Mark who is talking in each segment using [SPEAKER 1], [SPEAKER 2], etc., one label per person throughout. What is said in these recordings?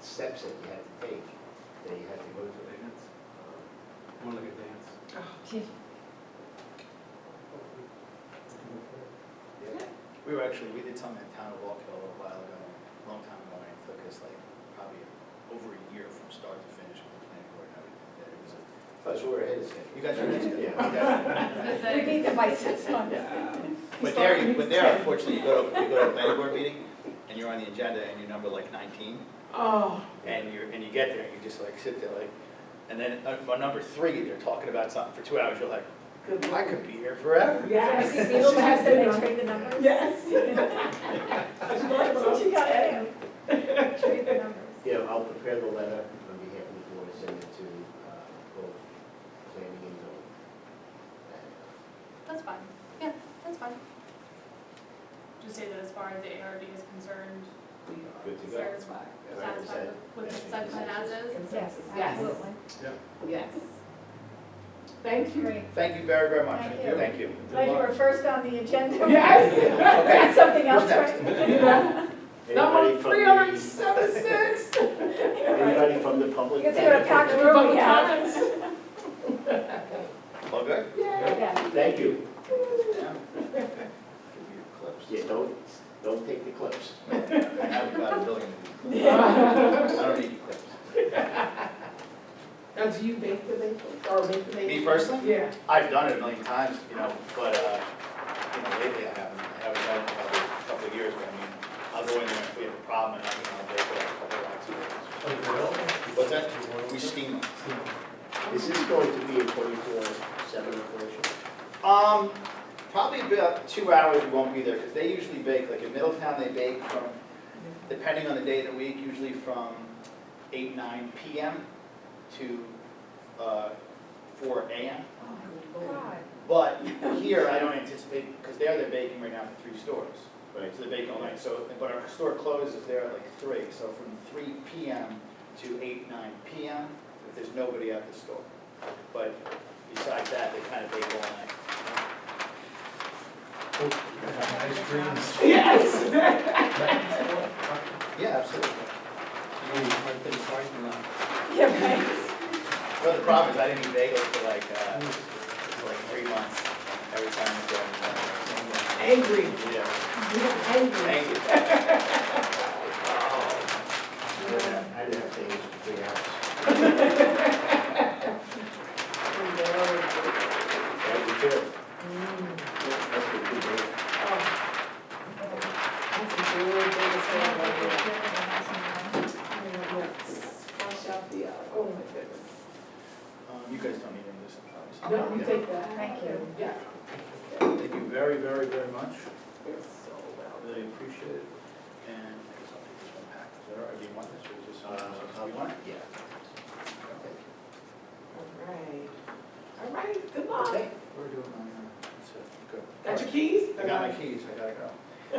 [SPEAKER 1] steps that you have to take, that you have to go through.
[SPEAKER 2] Dance,
[SPEAKER 1] Um,
[SPEAKER 2] more like a dance.
[SPEAKER 1] Um, yeah.
[SPEAKER 3] We were actually, we did something in town of Walk Hill a while ago, a long time ago, and it took us like probably over a year from start to finish with the planning board and everything. That it was a-
[SPEAKER 1] Plus, we're ahead of schedule.
[SPEAKER 3] You guys are nice, good.
[SPEAKER 1] Yeah.
[SPEAKER 3] Yeah.
[SPEAKER 4] We beat them by six months.
[SPEAKER 3] But there, you- but there unfortunately, you go to, you go to a planning board meeting, and you're on the agenda, and you're number like nineteen,
[SPEAKER 4] Oh.
[SPEAKER 3] and you're, and you get there, and you just like sit there like, and then, uh, well, number three, they're talking about something for two hours, you're like,
[SPEAKER 4] Good
[SPEAKER 3] I could be here forever.
[SPEAKER 4] Yes.
[SPEAKER 5] Yes. People pass them and trade the numbers.
[SPEAKER 4] Yes. So she got it.
[SPEAKER 5] Trade the numbers.
[SPEAKER 1] Yeah, I'll prepare the letter on behalf of the board, and send it to uh, both planning and zoning. And,
[SPEAKER 6] That's fine, yeah, that's fine. Just say that as far as the ARB is concerned, we
[SPEAKER 1] Good to
[SPEAKER 6] are
[SPEAKER 1] go.
[SPEAKER 6] satisfied,
[SPEAKER 1] Yeah, I would say
[SPEAKER 6] satisfied with- with
[SPEAKER 1] that's
[SPEAKER 6] the site plan as is.
[SPEAKER 5] Yes,
[SPEAKER 4] Yes.
[SPEAKER 5] absolutely.
[SPEAKER 4] Yes. Thank you.
[SPEAKER 5] Great.
[SPEAKER 3] Thank you very, very much.
[SPEAKER 5] Thank you.
[SPEAKER 3] Thank you.
[SPEAKER 5] Glad you were first on the agenda.
[SPEAKER 4] Yes.
[SPEAKER 5] That's something
[SPEAKER 3] Who's
[SPEAKER 5] else, right?
[SPEAKER 1] uh,
[SPEAKER 4] Number
[SPEAKER 1] anybody from the-
[SPEAKER 4] three hundred seventy-six.
[SPEAKER 1] Anybody from the public?
[SPEAKER 5] You can see what a packed room we have.
[SPEAKER 3] All good?
[SPEAKER 5] Yeah.
[SPEAKER 1] Thank you.
[SPEAKER 3] Yeah. Give me your clips.
[SPEAKER 1] Yeah, don't, don't take the clips.
[SPEAKER 3] I have about a billion. I don't need clips.
[SPEAKER 4] Now, do you bake the maple, or make the maple?
[SPEAKER 3] Me personally?
[SPEAKER 4] Yeah.
[SPEAKER 3] I've done it a million times, you know, but, uh, you know, lately I haven't, I haven't done it in probably a couple of years, but I mean, I'll go in there if we have a problem and I, you know, they put a couple of rocks in it. What's that? We steam them.
[SPEAKER 1] Is this going to be a twenty-four, seven operation?
[SPEAKER 3] Um, probably about two hours we won't be there, because they usually bake, like in Middletown, they bake from, depending on the day of the week, usually from eight, nine PM to, uh, four AM.
[SPEAKER 5] God.
[SPEAKER 3] But here, I don't anticipate, because they're, they're baking right now for three stores.
[SPEAKER 1] Right.
[SPEAKER 3] So they bake all night, so, but our store closes there at like three, so from three PM to eight, nine PM, if there's nobody at the store. But besides that, they kind of bake all night.
[SPEAKER 2] Nice dreams.
[SPEAKER 4] Yes.
[SPEAKER 3] Yeah, absolutely.
[SPEAKER 5] Yeah, right.
[SPEAKER 3] Well, the problem is I didn't eat bagels for like, uh, for like three months, every time I go.
[SPEAKER 4] Angry.
[SPEAKER 3] Yeah,
[SPEAKER 4] Angry.
[SPEAKER 3] thank you.
[SPEAKER 1] I didn't have things to figure out. That was good. That's a good day.
[SPEAKER 4] That's a good thing to say about that. Wash out the, uh, oh my goodness.
[SPEAKER 3] Um, You guys don't need any of this, obviously.
[SPEAKER 4] No, you take that.
[SPEAKER 5] Thank you.
[SPEAKER 4] Yeah.
[SPEAKER 3] Thank you very, very, very much.
[SPEAKER 4] You're so well.
[SPEAKER 3] Really appreciate it. And I guess I'll take this one back. Is that all right? Do you want this or is this?
[SPEAKER 1] Uh, how
[SPEAKER 3] You want it?
[SPEAKER 1] Yeah.
[SPEAKER 3] Okay.
[SPEAKER 4] All right. All right, good luck.
[SPEAKER 3] We're doing on, uh, it's, uh, good.
[SPEAKER 4] Got your keys?
[SPEAKER 3] I got my keys, I gotta go.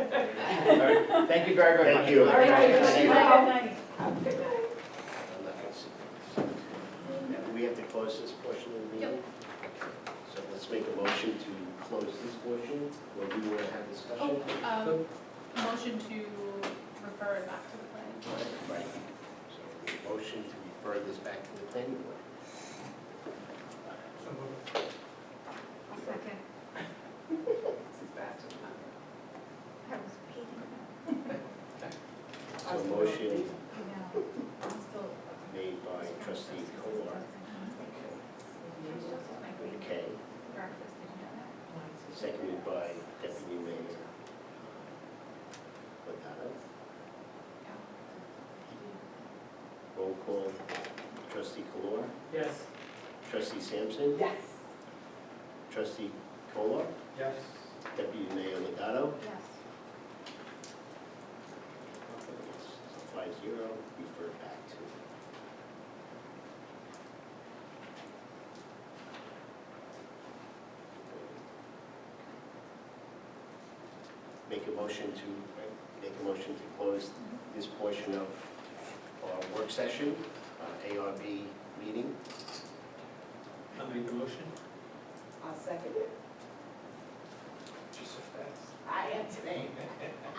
[SPEAKER 3] All right. Thank you very, very much.
[SPEAKER 1] Thank you.
[SPEAKER 3] All
[SPEAKER 4] All
[SPEAKER 3] right.
[SPEAKER 4] right,
[SPEAKER 5] Good
[SPEAKER 4] good
[SPEAKER 5] night,
[SPEAKER 4] night.
[SPEAKER 5] good night.
[SPEAKER 4] Good night.
[SPEAKER 1] I'm not gonna sit there. Now, do we have to close this portion of the meeting? Okay. So let's make a motion to close this portion, or do you want to have discussion?
[SPEAKER 6] Oh, um, motion to refer it back to the planning board.
[SPEAKER 1] Right. So, a motion to refer this back to the planning board.
[SPEAKER 5] I'll second. I was peeing.
[SPEAKER 1] So a motion
[SPEAKER 5] You know, I'm still.
[SPEAKER 1] made by trustee Kolar,
[SPEAKER 5] Breakfast,
[SPEAKER 1] okay,
[SPEAKER 5] did you know that?
[SPEAKER 1] seconded by deputy mayor. uh, Patano. Roll call, trustee Kolar,
[SPEAKER 2] Yes.
[SPEAKER 1] trustee Sampson,
[SPEAKER 4] Yes.
[SPEAKER 1] trustee Kolar,
[SPEAKER 2] Yes.
[SPEAKER 1] deputy mayor Legato.
[SPEAKER 5] Yes.
[SPEAKER 1] Five zero, refer back to. Make a motion to, make a motion to close this portion of our work session, uh, our ARB meeting.
[SPEAKER 2] I'll make the motion.
[SPEAKER 4] I'll second it.
[SPEAKER 2] Just so fast.
[SPEAKER 4] I am today.